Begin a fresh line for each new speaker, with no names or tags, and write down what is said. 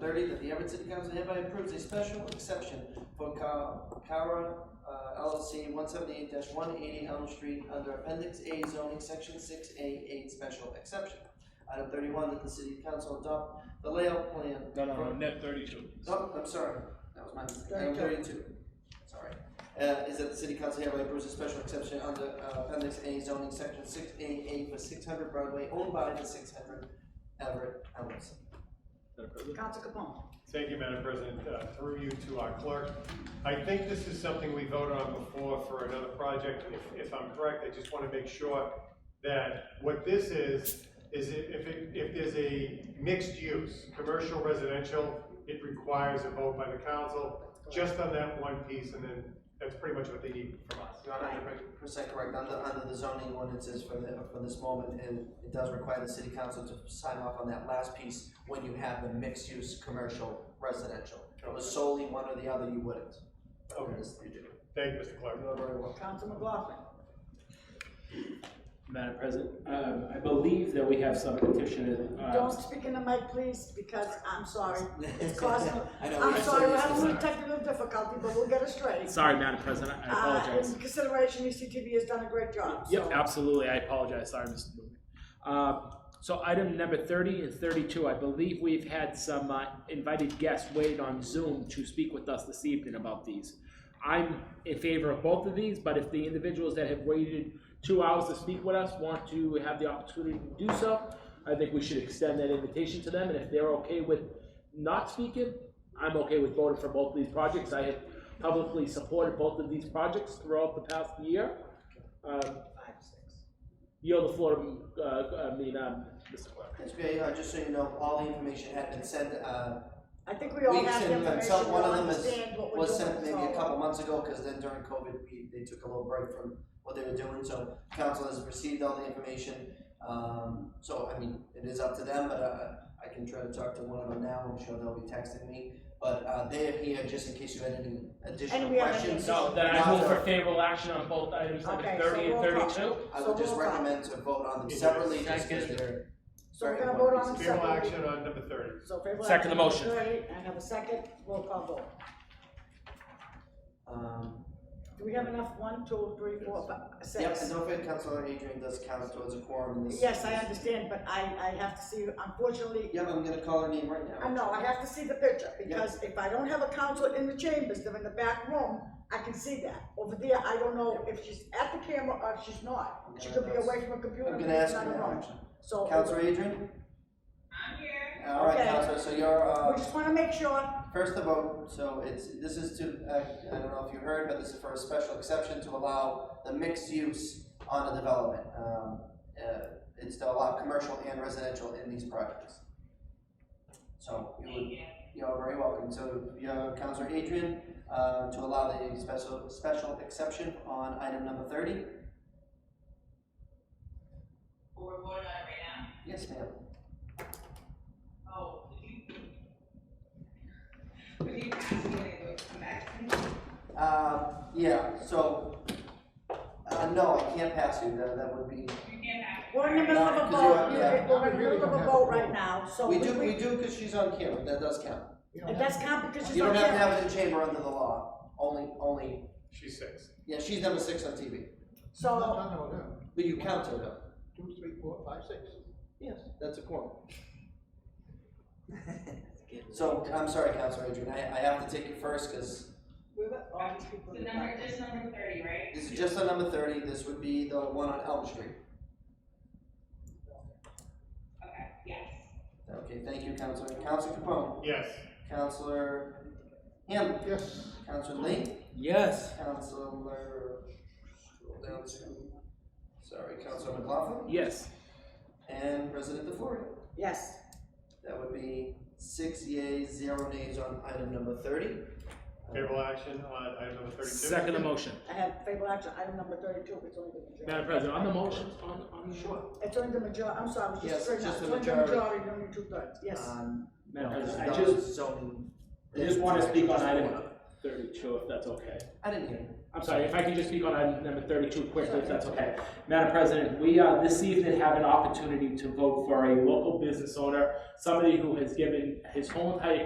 thirty, that the Everett City Council hereby approves a special exception for Ca- Cara uh, LLC one seventy-eight one eighty Elm Street under Appendix A zoning, Section six A eight, special exception. Item thirty-one, that the city council adopt the layout plan.
No, no, no,
for-
net thirty-two.
Oh, I'm sorry, that was my mistake, item thirty-two, sorry. Uh, is that the city council hereby approves a special exception under uh, appendix A zoning section six A eight for six hundred Broadway owned by the six hundred Everett LLC.
Madam President?
Council Capone.
Thank you, Madam President. Uh, Through you to our clerk. I think this is something we voted on before for another project. If- If I'm correct, I just want to make sure that what this is, is i- if, it- if there's a mixed use, commercial, residential, it requires a vote by the council, just on that one piece, and then that's pretty much what they need from us.
Your Honor, you're percent correct, under, under the zoning ordinances for the, for this moment, and it does require the city council to sign off on that last piece when you have the mixed-use commercial residential. If it was solely one or the other, you wouldn't.
Okay.
Yes, you do.
Thank you, Mr. Clerk.
You are very welcome.
Council McLaughlin.
Madam President, um, I believe that we have some petition,
Don't
uh,
speak in the mic, please, because I'm sorry. It's causing,
I know, we
I'm
have
sorry, we're
serious
having a little
concern.
technical difficulty, but we'll get it straight.
sorry, Madam President, I
Uh,
apologize.
in consideration, E UCTV has done a great job, so.
Yep, absolutely, I apologize, sorry, Mr. Booth. Uh, so item number thirty and thirty-two, I believe we've had some, uh, invited guests wait on Zoom to speak with us this evening about these. I'm in favor of both of these, but if the individuals that have waited two hours to speak with us want to have the opportunity to do so, I think we should extend that invitation to them, and if they're okay with not speaking, I'm okay with voting for both of these projects. I have publicly supported both of these projects throughout the past year. Um,
Five, six.
Yield the floor, uh, I mean, um, Mr. Clerk.
It's great, uh, just so you know, all the information had been sent, uh,
I think we all
Weeks
have the
and, uh,
information,
some-
we
one
all
of them is-
understand what we're doing,
was
so.
sent maybe a couple months ago, because then during COVID, we, they took a little break from what they were doing, so council has received all the information. Um, so, I mean, it is up to them, but, uh, I can try to talk to one of them now, I'm sure they'll be texting me, but, uh, they are here just in case you had any additional
we have any
questions.
So then I move for favorable action on both items number
Okay, so
thirty and
roll call.
thirty-two.
I would just
So roll call.
recommend to vote on them
Yeah.
separately, just because they're.
So we're gonna vote on them
Favorable
separately.
action on number thirty.
So favorable
Second
action
the motion.
number thirty, and have a second, roll call vote.
Um,
Do we have enough, one, two, three, four, five, six?
yep, and don't forget, Councilor Adrian does count towards a quorum in this.
Yes, I understand, but I, I have to see, unfortunately,
Yep, I'm gonna call her name right now.
I know, I have to see the picture, because if I don't have a counselor in the chambers, they're in the back room, I can see that. Over there, I don't know if she's at the camera or if she's not, she could be away from a computer.
I'm
and
gonna
she's
ask
not
her now,
alone.
actually.
So,
Counselor
we
Adrian? I'm here. All right,
Okay.
Counselor, so you're, uh,
just wanna make sure,
first the vote, so it's, this is to, uh, I don't know if you heard, but this is for a special exception to allow the mixed use on a development. Um, uh, it's to allow commercial and residential in these projects. So, you would, you're very welcome, so, you have Counselor Adrian, uh, to allow the special, special exception on item number thirty?
We're voting on it right now.
Yes, ma'am.
Oh, did you? Did you ask me to come back?
Uh, yeah, so, uh, no, I can't pass you, that, that would be,
You can't ask.
we're in the middle of
No,
a
'cause
vote,
you have-
we're in the middle of a vote right now, so.
we do, we do, cause she's on camera, that does count.
And that's not because she's
You
on
don't have to
camera.
have it in chamber under the law, only, only,
She's six.
yeah, she's number six on TV,
So,
No, no, no,
but you count her though.
two, three, four, five, six.
Yes. That's a quorum. So, I'm sorry, Counselor Adrian, I, I have to take you first, cause
The number, just number thirty, right?
this is just on number thirty, this would be the one on Elm Street.
Okay, yes.
Okay, thank you, Counselor, Counselor Capone,
Yes.
Counselor Hamlin,
Yes.
Counselor Lee.
Yes.
Counselor, scroll down to, sorry, Counselor McLaughlin
Yes.
and President DeFlorio.
yes,
That would be six yeas, zero nays on item number thirty.
Favorable action on item number thirty-two.
Second the motion.
I have favorable action, item number thirty-two, it's only the majority.
Madam President, on the motions, on, on. Sure.
It's only the major, I'm sorry, it's
Yes,
just straight
just
up,
the
it's only the
majority.
majority, only two thirds, yes.
Um,
Madam President, I
Dr.
just,
Zoning.
I just wanna speak on
Just
item
one.
thirty-two, if that's okay.
I didn't hear.
I'm sorry, if I can just speak on item number thirty-two quickly, if that's okay. Madam President, we, uh, this evening have an opportunity to vote for a local business owner, somebody who has given his whole entire